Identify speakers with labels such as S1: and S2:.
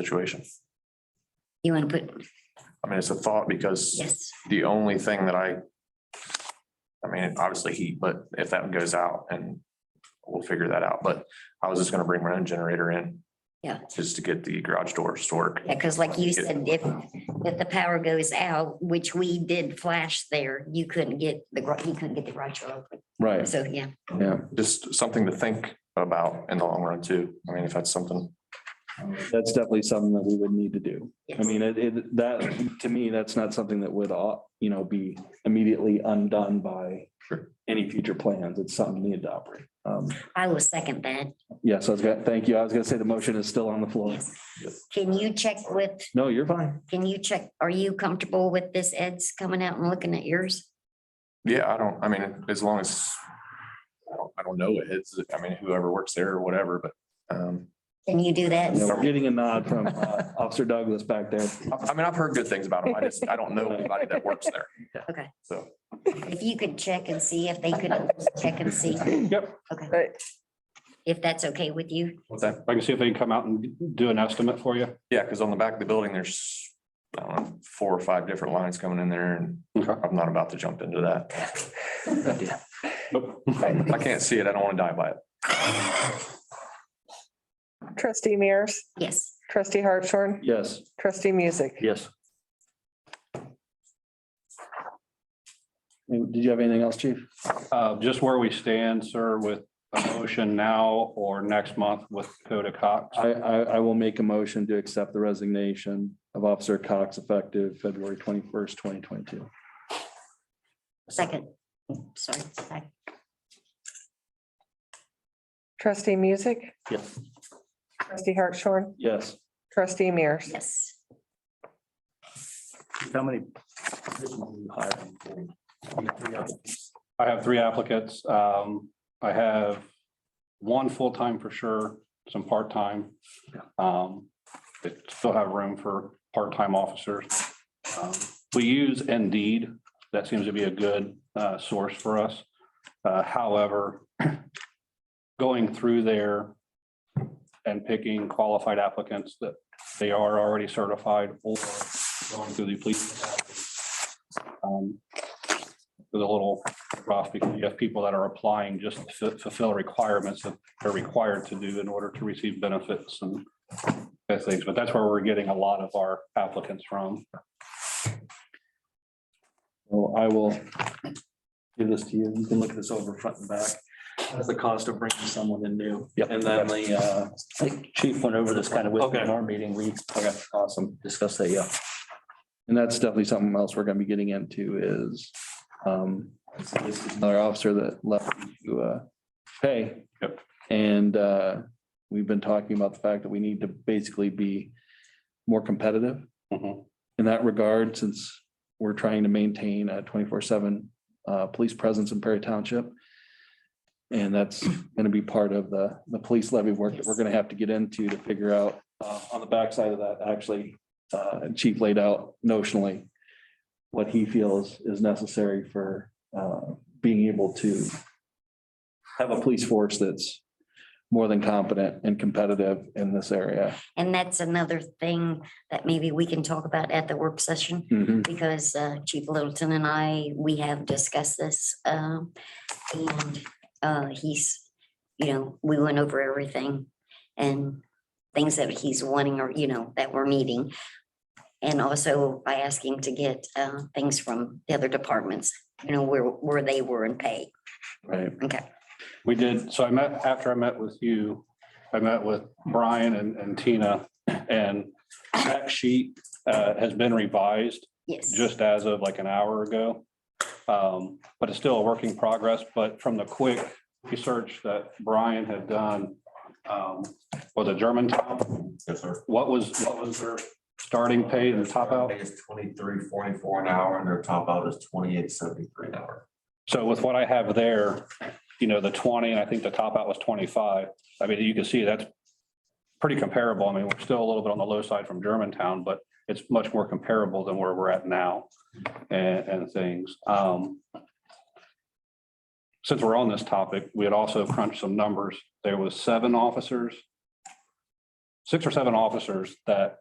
S1: situation.
S2: You want to put,
S1: I mean, it's a thought because
S2: yes,
S1: the only thing that I. I mean, obviously heat, but if that goes out and we'll figure that out, but I was just gonna bring my own generator in.
S2: Yeah.
S1: Just to get the garage doors to work.
S2: yeah, because like you said, if, if the power goes out, which we did flash there, you couldn't get the, gar- you couldn't get the garage door open.
S3: Right,
S2: So, yeah,
S3: yeah.
S1: Just something to think about in the long run too. I mean, if that's something,
S3: That's definitely something that we would need to do. I
S2: yes,
S3: mean, it, it, that, to me, that's not something that would, uh, you know, be immediately undone by
S1: Sure.
S3: any future plans. It's something we need to operate. Um,
S2: I will second that.
S3: yeah, so I was gonna, thank you. I was gonna say the motion is still on the floor.
S2: Yes. Can you check with,
S3: No, you're fine.
S2: can you check, are you comfortable with this Ed's coming out and looking at yours?
S1: yeah, I don't, I mean, as long as. I don't, I don't know. It's, I mean, whoever works there or whatever, but, um,
S2: Can you do that?
S3: Yeah, We're getting a nod from uh, Officer Douglas back there.
S1: I, I mean, I've heard good things about them. I just, I don't know anybody that works there.
S2: Okay.
S1: So.
S2: If you could check and see if they could check and see
S4: Yep,
S2: if that's okay with you.
S1: What's that?
S4: I can see if they can come out and do an estimate for you.
S1: Yeah, because on the back of the building, there's, I don't know, four or five different lines coming in there and
S4: Okay.
S1: I'm not about to jump into that.
S4: Nope.
S1: I can't see it. I don't want to die by it.
S5: Trustee Mears,
S2: Yes.
S5: trustee Hartshorn,
S3: Yes.
S5: trustee Music.
S3: Yes. Did you have anything else, chief?
S4: Uh, Just where we stand, sir, with a motion now or next month with Dakota Cox.
S3: I, I, I will make a motion to accept the resignation of Officer Cox effective February twenty-first, twenty twenty-two.
S2: Second. Sorry. sec-
S5: Trustee Music.
S3: Yes.
S5: Trustee Hartshorn,
S3: Yes.
S5: trustee Mears.
S2: Yes.
S3: How many?
S4: I have three applicants. Um, I have one full-time for sure, some part-time. Um, They still have room for part-time officers. Um, We use Indeed. That seems to be a good uh, source for us. Uh, However, going through there and picking qualified applicants that they are already certified or going through the police. um, Is a little rough because you have people that are applying just to fu- fulfill requirements that they're required to do in order to receive benefits and that things, but that's where we're getting a lot of our applicants from.
S3: Well, I will give this to you. You can look this over front and back. That's the cost of bringing someone in new.
S6: Yep.
S3: And then the, uh,
S6: I think Chief went over this kind of with
S3: Okay.
S6: in our meeting. We
S3: awesome.
S6: discussed that, yeah.
S3: And that's definitely something else we're gonna be getting into is, um, this is another officer that left to, uh, pay.
S4: Yep.
S3: And, uh, we've been talking about the fact that we need to basically be more competitive
S4: Mhm.
S3: in that regard, since we're trying to maintain a twenty-four seven, uh, police presence in Perry Township. And that's gonna be part of the, the police levy work that we're gonna have to get into to figure out, uh, on the backside of that, actually, uh, Chief laid out notionally what he feels is necessary for, uh, being able to have a police force that's more than competent and competitive in this area.
S2: And that's another thing that maybe we can talk about at the work session. because uh, Chief Littleton and I, we have discussed this. um, And uh, he's, you know, we went over everything and things that he's wanting or, you know, that we're meeting. And also by asking to get uh, things from the other departments, you know, where, where they were in pay.
S3: Right.
S2: Okay,
S4: We did, so I met, after I met with you, I met with Brian and and Tina, and that sheet uh, has been revised
S2: yes.
S4: just as of like an hour ago. Um, But it's still a work in progress, but from the quick research that Brian had done, um, was it Germantown?
S7: Yes, sir.
S4: What was, what was their starting pay and top out?
S7: It's twenty-three forty-four an hour and their top out is twenty-eight seventy-three an hour.
S4: So with what I have there, you know, the twenty, and I think the top out was twenty-five. I mean, you can see that's pretty comparable. I mean, we're still a little bit on the low side from Germantown, but it's much more comparable than where we're at now and, and things. Um, Since we're on this topic, we had also crunched some numbers. There was seven officers, six or seven officers that